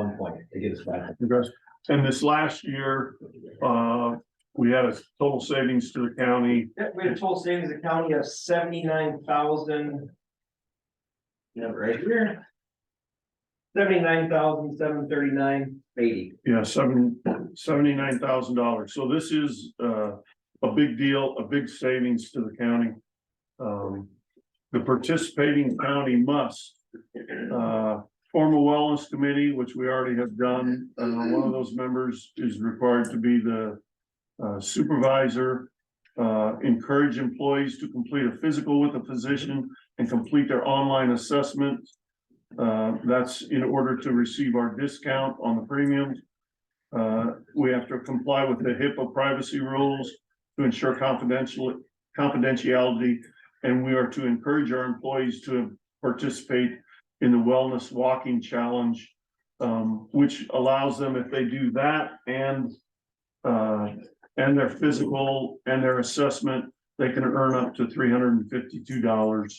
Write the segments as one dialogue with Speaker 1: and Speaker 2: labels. Speaker 1: some point to get us back.
Speaker 2: Okay. And this last year, uh, we had a total savings to the county,
Speaker 3: Yeah, we had a total savings account of seventy-nine thousand. You know, right here. Seventy-nine thousand, seven thirty-nine, eighty.
Speaker 2: yeah, seven, seventy-nine thousand dollars. So this is, uh, a big deal, a big savings to the county. Um, the participating county must, uh, form a wellness committee, which we already have done. Uh, one of those members is required to be the uh, supervisor. Uh, encourage employees to complete a physical with a physician and complete their online assessment. Uh, that's in order to receive our discount on the premiums. Uh, we have to comply with the HIPAA privacy rules to ensure confidential confidentiality. And we are to encourage our employees to participate in the Wellness Walking Challenge. um, which allows them, if they do that and uh, and their physical and their assessment, they can earn up to three hundred and fifty-two dollars.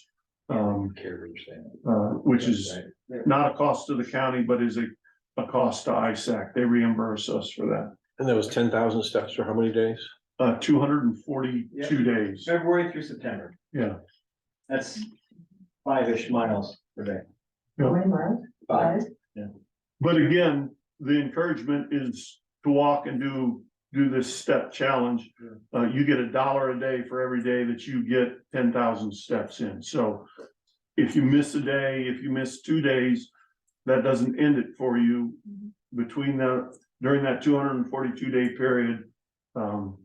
Speaker 2: um, uh,
Speaker 1: Carriers then.
Speaker 2: which is
Speaker 1: Right.
Speaker 2: not a cost to the county, but is a, a cost to ISAC. They reimburse us for that.
Speaker 4: And that was ten thousand steps for how many days?
Speaker 2: Uh, two hundred and forty-two days.
Speaker 3: February through September,
Speaker 2: Yeah,
Speaker 3: that's five-ish miles per day.
Speaker 5: How many miles?
Speaker 1: Five.
Speaker 2: but again, the encouragement is to walk and do, do this step challenge. Uh, you get a dollar a day for every day that you get ten thousand steps in. So if you miss a day, if you miss two days, that doesn't end it for you between the, during that two hundred and forty-two day period. Um,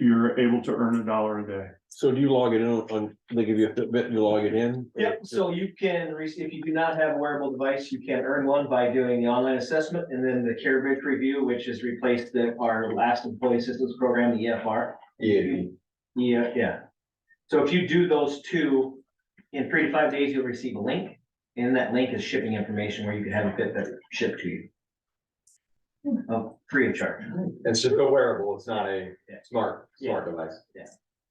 Speaker 2: you're able to earn a dollar a day.
Speaker 4: So do you log it in on, they give you a Fitbit, you log it in?
Speaker 3: Yep, so you can, re- if you do not have a wearable device, you can earn one by doing the online assessment and then the care bridge review, which has replaced the, our last employee assistance program, the E EFR.
Speaker 1: Yeah,
Speaker 3: Yeah, yeah. So if you do those two, in three to five days, you'll receive a link. And that link is shipping information where you can have a Fitbit shipped to you. Of free of charge.
Speaker 1: it's just a wearable, it's not a
Speaker 3: Yeah.
Speaker 1: smart,
Speaker 3: Yeah.
Speaker 1: smart device.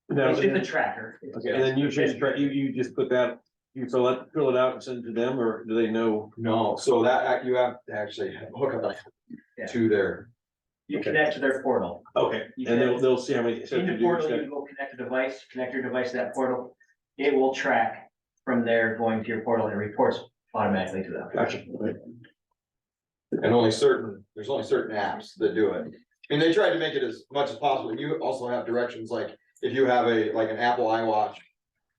Speaker 4: Now,
Speaker 3: It's just a
Speaker 4: And
Speaker 3: tracker.
Speaker 4: then you just, try- you, you just put that, you fill it, fill it out and send it to them, or do they know?
Speaker 1: No, so that, act- you have to actually hook up
Speaker 3: Yeah.
Speaker 1: to their,
Speaker 3: You connect to their portal.
Speaker 4: Okay.
Speaker 3: You
Speaker 4: And they'll,
Speaker 3: can-
Speaker 4: they'll see how many. steps
Speaker 3: In the
Speaker 4: you do each
Speaker 3: portal,
Speaker 4: day.
Speaker 3: you go connect a device, connect your device to that portal. It will track from there going to your portal and reports automatically to them.
Speaker 4: Gotcha.
Speaker 1: and only certain, there's only certain apps that do it. And they tried to make it as much as possible, and you also have directions, like, if you have a, like an Apple iWatch.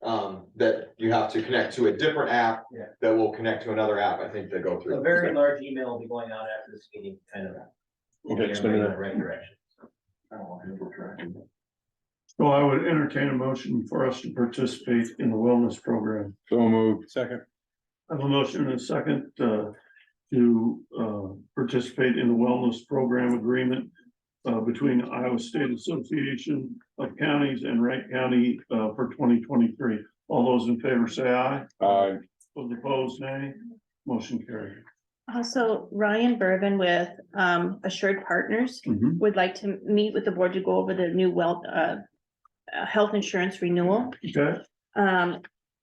Speaker 1: Um, that you have to connect to a different app.
Speaker 3: Yeah.
Speaker 1: That will connect to another app, I think they go through.
Speaker 3: A very large email will be going out after this meeting, kind of.
Speaker 4: Okay, so
Speaker 3: Everybody in the
Speaker 4: that-
Speaker 3: Right direction.
Speaker 2: So I would entertain a motion for us to participate in the wellness program.
Speaker 4: So moved. Second.
Speaker 2: I have a motion and a second, uh, to, uh, participate in the wellness program agreement. Uh, between Iowa State Association of Counties and Wright County, uh, for twenty twenty-three. All those in favor say aye,
Speaker 4: Aye.
Speaker 2: those opposed nay, motion carried.
Speaker 5: Also, Uh, Ryan Bourbon with um Assured Partners
Speaker 4: Mm-hmm.
Speaker 2: Mhm.
Speaker 5: would like to meet with the board to go over the new well, uh. uh, health insurance renewal.
Speaker 2: Okay,
Speaker 5: Um,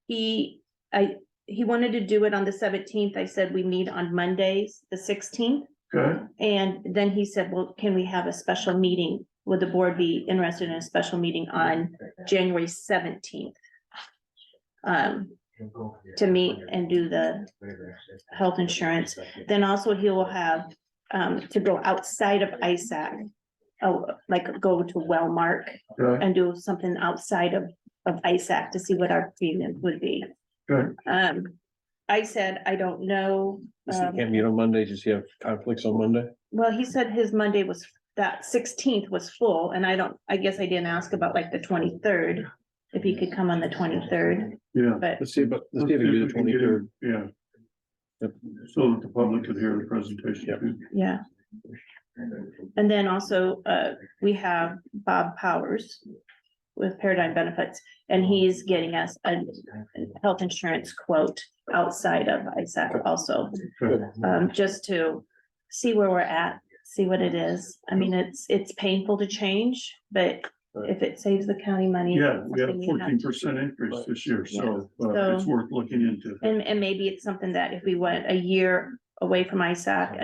Speaker 5: he, I, he wanted to do it on the seventeenth. I said we meet on Mondays, the sixteenth.
Speaker 2: okay,
Speaker 5: And then he said, well, can we have a special meeting? Would the board be interested in a special meeting on January seventeenth? Um, to meet and do the health insurance. Then also he will have um to go outside of ISAC. Oh, like go to Wellmark
Speaker 2: okay,
Speaker 5: and do something outside of of ISAC to see what our premium would be.
Speaker 2: Good.
Speaker 5: Um, I said, I don't know. um,
Speaker 4: Can't meet on Monday, does he have conflicts on Monday?
Speaker 5: Well, he said his Monday was, that sixteenth was full, and I don't, I guess I didn't ask about like the twenty-third. If he could come on the twenty-third,
Speaker 2: yeah.
Speaker 5: but
Speaker 4: Let's see, but, let's see if he can
Speaker 2: If we
Speaker 4: do the
Speaker 2: can get
Speaker 4: twenty-third.
Speaker 2: him, Yeah.
Speaker 4: Yep.
Speaker 2: So that the public could hear the presentation.
Speaker 4: Yep.
Speaker 2: too.
Speaker 5: yeah, and then also, uh, we have Bob Powers. With Paradigm Benefits, and he's getting us a health insurance quote outside of ISAC also.
Speaker 2: Mm-hmm.
Speaker 5: um, just to see where we're at, see what it is. I mean, it's, it's painful to change, but if it saves the county money.
Speaker 2: Yeah,
Speaker 5: it's
Speaker 2: we had a
Speaker 5: something we have
Speaker 2: fourteen
Speaker 5: to-
Speaker 2: percent increase this year, so, uh,
Speaker 5: So-
Speaker 2: it's worth looking into.
Speaker 5: And, and maybe it's something that if we went a year away from ISAC